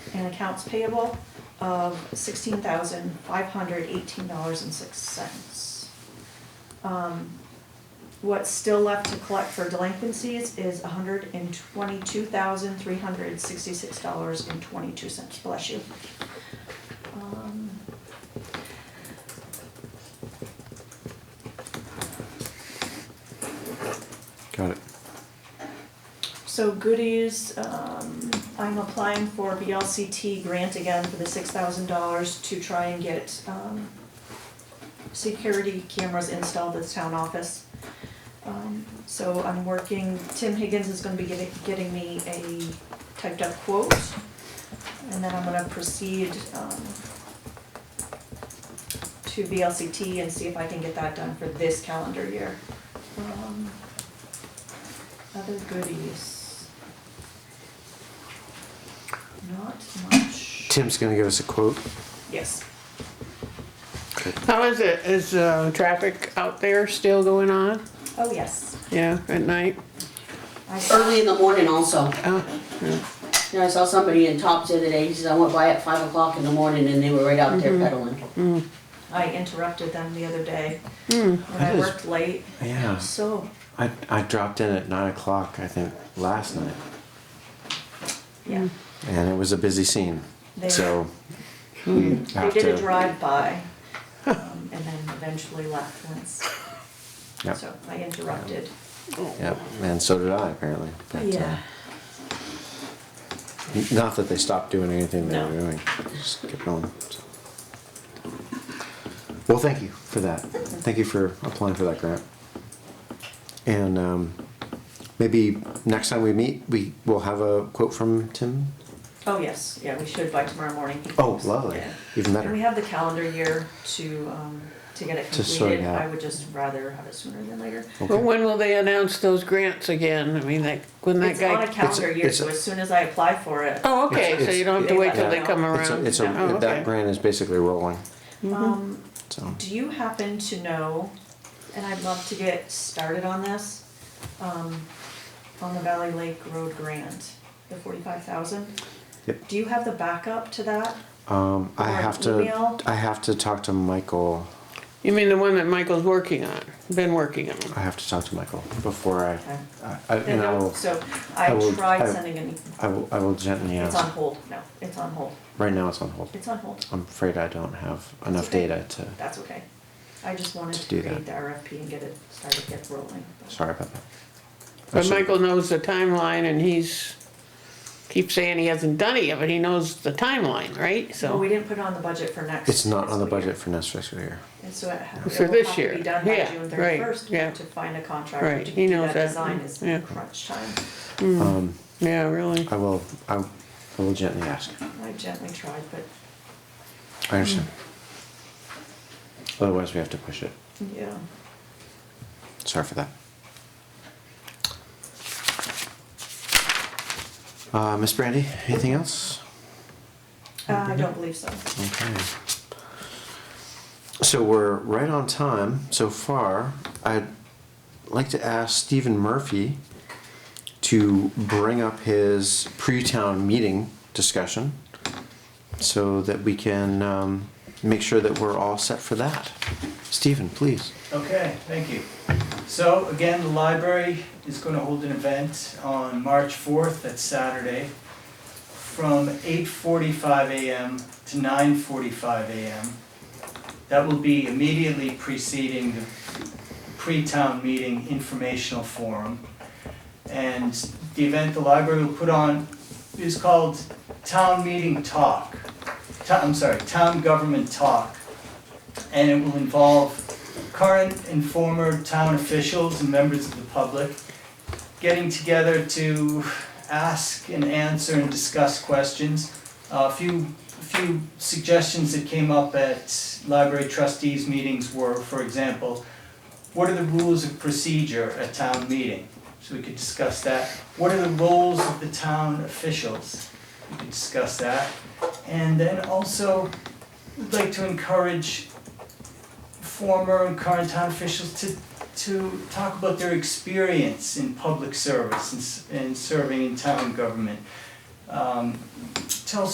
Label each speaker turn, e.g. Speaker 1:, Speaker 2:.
Speaker 1: and accounts payable of sixteen thousand five hundred eighteen dollars and six cents. Um, What's still left to collect for delinquencies is hundred and twenty-two thousand three hundred sixty-six dollars and twenty-two cents, bless you. Um,
Speaker 2: Got it.
Speaker 1: So goodies, um, I'm applying for a BLCT grant again for the six thousand dollars to try and get, um, security cameras installed at the town office. Um, so I'm working, Tim Higgins is gonna be getting, getting me a typed up quote. And then I'm gonna proceed, um, to BLCT and see if I can get that done for this calendar year. Um, other goodies? Not much.
Speaker 2: Tim's gonna give us a quote.
Speaker 1: Yes.
Speaker 3: How is it? Is uh, traffic out there still going on?
Speaker 1: Oh, yes.
Speaker 3: Yeah, at night?
Speaker 1: I saw,
Speaker 4: Early in the morning also.
Speaker 3: Oh,
Speaker 4: You know, I saw somebody in Tops the other day, he says, I went by at five o'clock in the morning and they were right out there pedaling.
Speaker 1: I interrupted them the other day when
Speaker 2: That
Speaker 1: I
Speaker 2: is-
Speaker 1: worked late.
Speaker 2: Yeah,
Speaker 1: So,
Speaker 2: I, I dropped in at nine o'clock, I think, last night,
Speaker 1: yeah,
Speaker 2: and it was a busy scene.
Speaker 1: They-
Speaker 2: So hmm,
Speaker 1: they
Speaker 2: have
Speaker 1: did a
Speaker 2: to,
Speaker 1: drive-by um, and then eventually left once.
Speaker 2: Yep.
Speaker 1: So I interrupted.
Speaker 2: yeah, and so did I apparently. But, uh,
Speaker 1: Yeah,
Speaker 2: Not that they stopped doing anything they were
Speaker 1: No.
Speaker 2: doing. Just kept going. so. Well, thank you for that. Thank you for applying for that grant. And um, maybe next time we meet, we will have a quote from Tim.
Speaker 1: oh, yes, yeah, we should by tomorrow morning.
Speaker 2: Oh, lovely.
Speaker 1: Yeah.
Speaker 2: Even
Speaker 1: And
Speaker 2: better.
Speaker 1: we have the calendar year to, um, to get it
Speaker 2: To sort it
Speaker 1: completed.
Speaker 2: out.
Speaker 1: I would just rather have it sooner than later.
Speaker 3: but when will they announce those grants again? I mean, like, when that
Speaker 1: It's on a
Speaker 3: guy.
Speaker 1: calendar year,
Speaker 2: it's a-
Speaker 1: so as soon as I apply for it,
Speaker 3: Oh, okay, so
Speaker 2: It's-
Speaker 3: you don't have to
Speaker 1: it's-
Speaker 3: wait till they
Speaker 1: Yeah.
Speaker 3: come
Speaker 2: It's a,
Speaker 3: around?
Speaker 2: it's a,
Speaker 3: Oh,
Speaker 2: that
Speaker 3: okay.
Speaker 2: grant is basically rolling,
Speaker 1: um,
Speaker 2: so.
Speaker 1: do you happen to know, and I'd love to get started on this, um, on the Valley Lake Road grant, the forty-five thousand?
Speaker 2: Yep.
Speaker 1: Do you have the backup to that?
Speaker 2: Um, I
Speaker 1: Or
Speaker 2: have
Speaker 1: email?
Speaker 2: to, I have to talk to Michael,
Speaker 3: You mean the one that Michael's working on, been working on?
Speaker 2: I have to talk to Michael before I,
Speaker 1: Okay.
Speaker 2: I- I, and I will,
Speaker 1: So
Speaker 2: I
Speaker 1: I
Speaker 2: will-
Speaker 1: tried
Speaker 2: I-
Speaker 1: sending an,
Speaker 2: I will, I will gently
Speaker 1: it's on
Speaker 2: ask.
Speaker 1: hold, no, it's on hold,
Speaker 2: Right now it's on hold.
Speaker 1: it's on hold,
Speaker 2: I'm afraid I don't have enough
Speaker 1: okay.
Speaker 2: data to,
Speaker 1: that's okay. I just wanted
Speaker 2: To
Speaker 1: to
Speaker 2: do
Speaker 1: create
Speaker 2: that.
Speaker 1: the RFP and get it started, get rolling.
Speaker 2: sorry about that.
Speaker 3: But
Speaker 2: Actually,
Speaker 3: Michael knows the timeline and he's, keeps saying he hasn't done it yet, but he knows the timeline, right?
Speaker 1: But we
Speaker 3: So,
Speaker 1: didn't put it on the budget for next.
Speaker 2: It's not on
Speaker 1: fiscal
Speaker 2: the
Speaker 1: year.
Speaker 2: budget for next fiscal year.
Speaker 1: And so it ha- it
Speaker 3: For
Speaker 1: will
Speaker 3: this
Speaker 1: have to be
Speaker 3: year.
Speaker 1: done by
Speaker 3: Yeah,
Speaker 1: June
Speaker 3: right,
Speaker 1: thirty-first
Speaker 3: yeah.
Speaker 1: to find a contractor
Speaker 3: Right,
Speaker 1: to
Speaker 3: he
Speaker 1: do
Speaker 3: knows
Speaker 1: that
Speaker 3: that,
Speaker 1: design is
Speaker 3: yeah.
Speaker 1: crunch time. Hmm.
Speaker 2: Um,
Speaker 3: yeah, really.
Speaker 2: I will, I I will gently ask.
Speaker 1: I gently tried, but
Speaker 2: I understand.
Speaker 1: Hmm.
Speaker 2: Otherwise, we have to push it.
Speaker 1: yeah,
Speaker 2: Sorry for that. Uh, Miss Brandy, anything else?
Speaker 1: Uh, I don't believe so.
Speaker 2: Okay. So we're right on time so far. I'd like to ask Stephen Murphy to bring up his pre-town meeting discussion so that we can um, make sure that we're all set for that. Stephen, please.
Speaker 5: Okay, thank you. So again, the library is going to hold an event on March 4th, that's Saturday, from 8:45 a.m. to 9:45 a.m. That will be immediately preceding the pre-town meeting informational forum. And the event the library will put on is called Town Meeting Talk. To- I'm sorry, Town Government Talk. And it will involve current and former town officials and members of the public getting together to ask and answer and discuss questions. Uh, A few, a few suggestions that came up at library trustees meetings were, for example, what are the rules of procedure at town meeting? So we could discuss that. What are the roles of the town officials? We could discuss that. And then also, we'd like to encourage former and current town officials to, to talk about their experience in public service and, s- and serving in town government. Um,